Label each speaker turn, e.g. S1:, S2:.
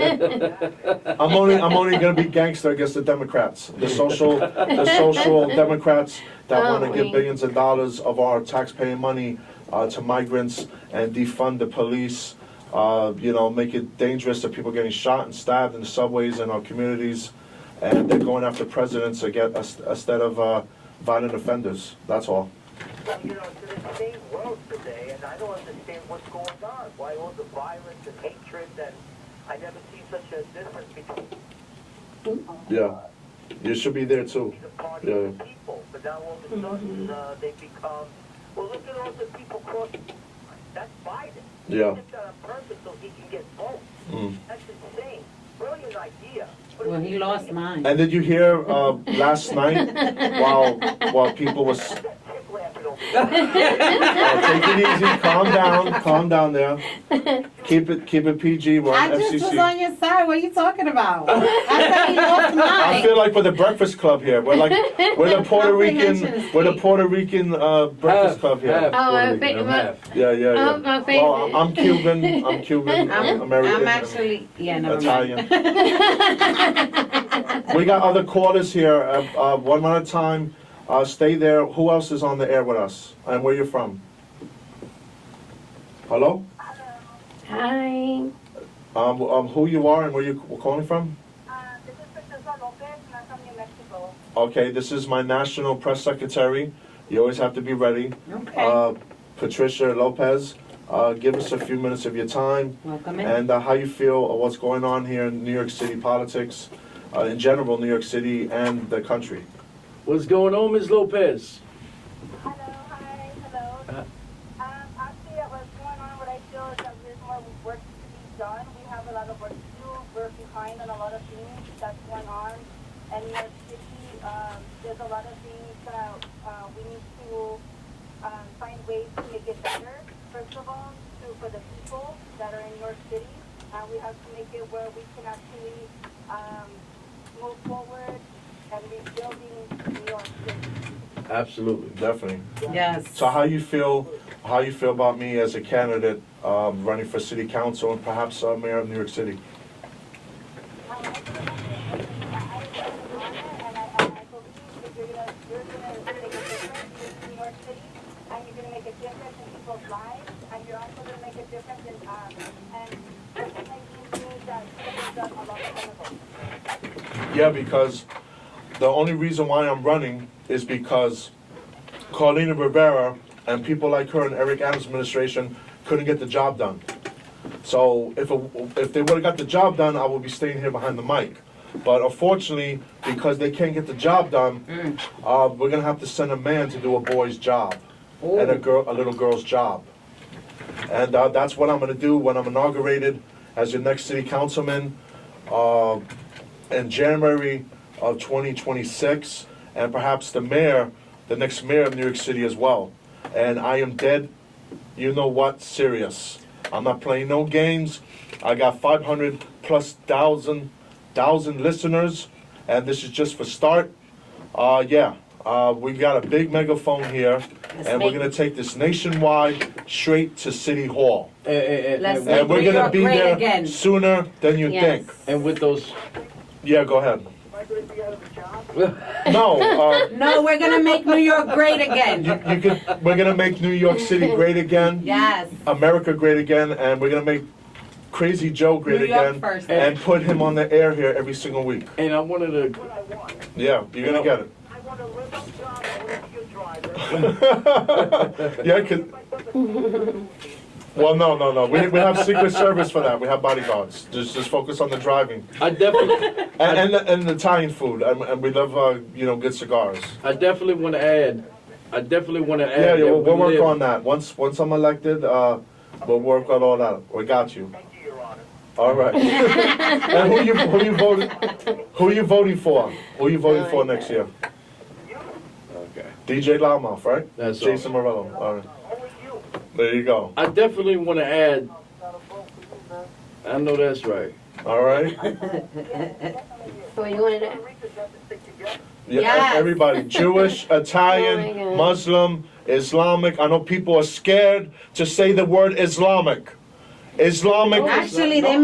S1: I'm only, I'm only gonna be gangster against the Democrats, the social, the social Democrats that
S2: Oh,
S1: wanna give
S2: wait.
S1: billions of dollars of our taxpayer money, uh, to migrants and defund the police, uh, you know, make it dangerous to people getting shot and stabbed in the subways in our communities. And they're going after presidents to get, us- instead of, uh, violent offenders, that's all.
S3: Well, you know, it's an insane world today, and I don't understand what's going on. Why all the violence and hatred, and I never see such a difference between
S1: Yeah, you should be there too.
S3: the party and the people. But now all of a sudden,
S4: Mm-hmm.
S3: uh, they become, well, look at all the people crossing. That's Biden.
S1: Yeah.
S3: He did that on purpose so he can get votes.
S1: Mm.
S3: That's insane. Brilliant idea. But
S4: Well, he lost
S3: it's-
S4: mine.
S1: And did you hear, uh, last night, while, while people was,
S3: That chick laughing over there.
S1: Uh, take it easy, calm down, calm down there. Keep it, keep it PG, we're on
S4: I just was on
S1: FCC.
S4: your side. What are you talking about? I thought he lost
S1: I
S4: mine.
S1: feel like we're the Breakfast Club here, we're like, we're the Puerto Rican, we're the Puerto Rican, uh, Breakfast Club here.
S2: Oh, I
S5: Puerto
S2: think-
S5: Rican,
S2: well-
S5: half.
S1: Yeah, yeah,
S2: Oh,
S1: yeah.
S2: my
S1: Well,
S2: favorite.
S1: I'm Cuban, I'm Cuban, I'm
S4: I'm, I'm
S1: American,
S4: actually, yeah,
S1: I'm
S4: never mind.
S1: Italian. We got other callers here, uh, uh, one at a time, uh, stay there, who else is on the air with us, and where you from? Hello?
S2: Hi.
S1: Um, um, who you are and where you calling from?
S6: Ah, this is Princesa Lopez, and I'm from New Mexico.
S1: Okay, this is my national press secretary. You always have to be ready.
S4: Okay.
S1: Uh, Patricia Lopez, uh, give us a few minutes of your time
S4: Welcome in.
S1: and uh, how you feel of what's going on here in New York City politics, uh, in general, New York City and the country.
S5: What's going on, Ms. Lopez?
S6: Hello, hi, hello.
S5: Uh.
S6: Um, actually, uh, what's going on, what I feel is that there's more work to be done. We have a lot of work to do. We're behind on a lot of things that's going on. And New York City, um, there's a lot of things that uh, we need to um, find ways to make it better. First of all, to, for the people that are in New York City, uh, we have to make it where we can actually um, move forward and rebuilding New York City.
S5: Absolutely.
S1: Definitely.
S4: Yes.
S1: So how you feel, how you feel about me as a candidate um, running for city council and perhaps uh, mayor of New York City?
S6: Um, I feel like I- I- I honor and I- I- I believe that you're gonna- you're gonna make a difference in New York City, and you're gonna make a difference in people's lives, and you're also gonna make a difference in, um, and personally, you need that people that are less vulnerable.
S1: Yeah, because the only reason why I'm running is because Carlina Rivera and people like her in Eric Adams' administration couldn't get the job done. So if, it- if they would've got the job done, I would be staying here behind the mic. But unfortunately, because they can't get the job done, uh, we're gonna have to send a man to do a boy's job and a girl, a little girl's job. And uh, that's what I'm gonna do when I'm inaugurated as your next city councilman. Uh, in January of 2026, and perhaps the mayor, the next mayor of New York City as well. And I am dead, you know what, serious. I'm not playing no games. I got 500 plus thousand, thousand listeners, and this is just for start. Uh, yeah, uh, we got a big megaphone here, and we're
S4: make-
S1: gonna take this nationwide straight to City Hall.
S5: And, and-
S4: Let's
S5: and-
S4: Make
S1: And we're
S4: New
S1: gonna
S4: York
S1: be
S4: great
S1: there
S4: again.
S1: sooner than you
S4: Yes.
S1: think.
S5: and with those,
S1: Yeah, go ahead.
S3: Am I going to be out of a job?
S1: No, uh,
S4: No, we're gonna make New York great
S1: You,
S4: again.
S1: you could, we're gonna make New York City great again,
S4: Yes.
S1: America great again, and we're gonna make Crazy Joe great
S4: New York
S1: again,
S4: first.
S1: and put him on the air here every single week.
S5: and I wanted to,
S3: What I want.
S1: Yeah, you're gonna get it.
S3: I want a little job. I want to be a driver.
S1: yeah, I could. Well, no, no, no. We, we have Secret Service for that. We have bodyguards. Just just focus on the driving
S5: I definitely,
S1: and and, the, and the Italian food, and, and we love uh, you know good cigars.
S5: I definitely want to add, I definitely want to add.
S1: Yeah, yeah.
S5: that
S1: We'll, we'll
S5: we
S1: work
S5: live-
S1: on that. Once once I'm elected, uh, we'll work on all that. We got you.
S3: Thank you, Your Honor.
S1: All right. and who you who you voting who you voting for? Who you voting for next year?
S5: Okay.
S1: DJ Loudmouth, right?
S5: That's
S1: Jason Morello. All
S3: Only
S1: right.
S3: you.
S1: There you go.
S5: I definitely want to add,
S3: Not a vote for you, man.
S5: I know that's right.
S1: All right. e-
S2: So you wanted to.
S3: Eureka's got to stick together.
S1: Yeah,
S4: Yes.
S1: Everybody, Jewish,
S2: Oh my
S1: Italian,
S2: God.
S1: Muslim, Islamic. I know people are scared to say the word Islamic. Islamic.
S2: Oh,
S4: Actually, they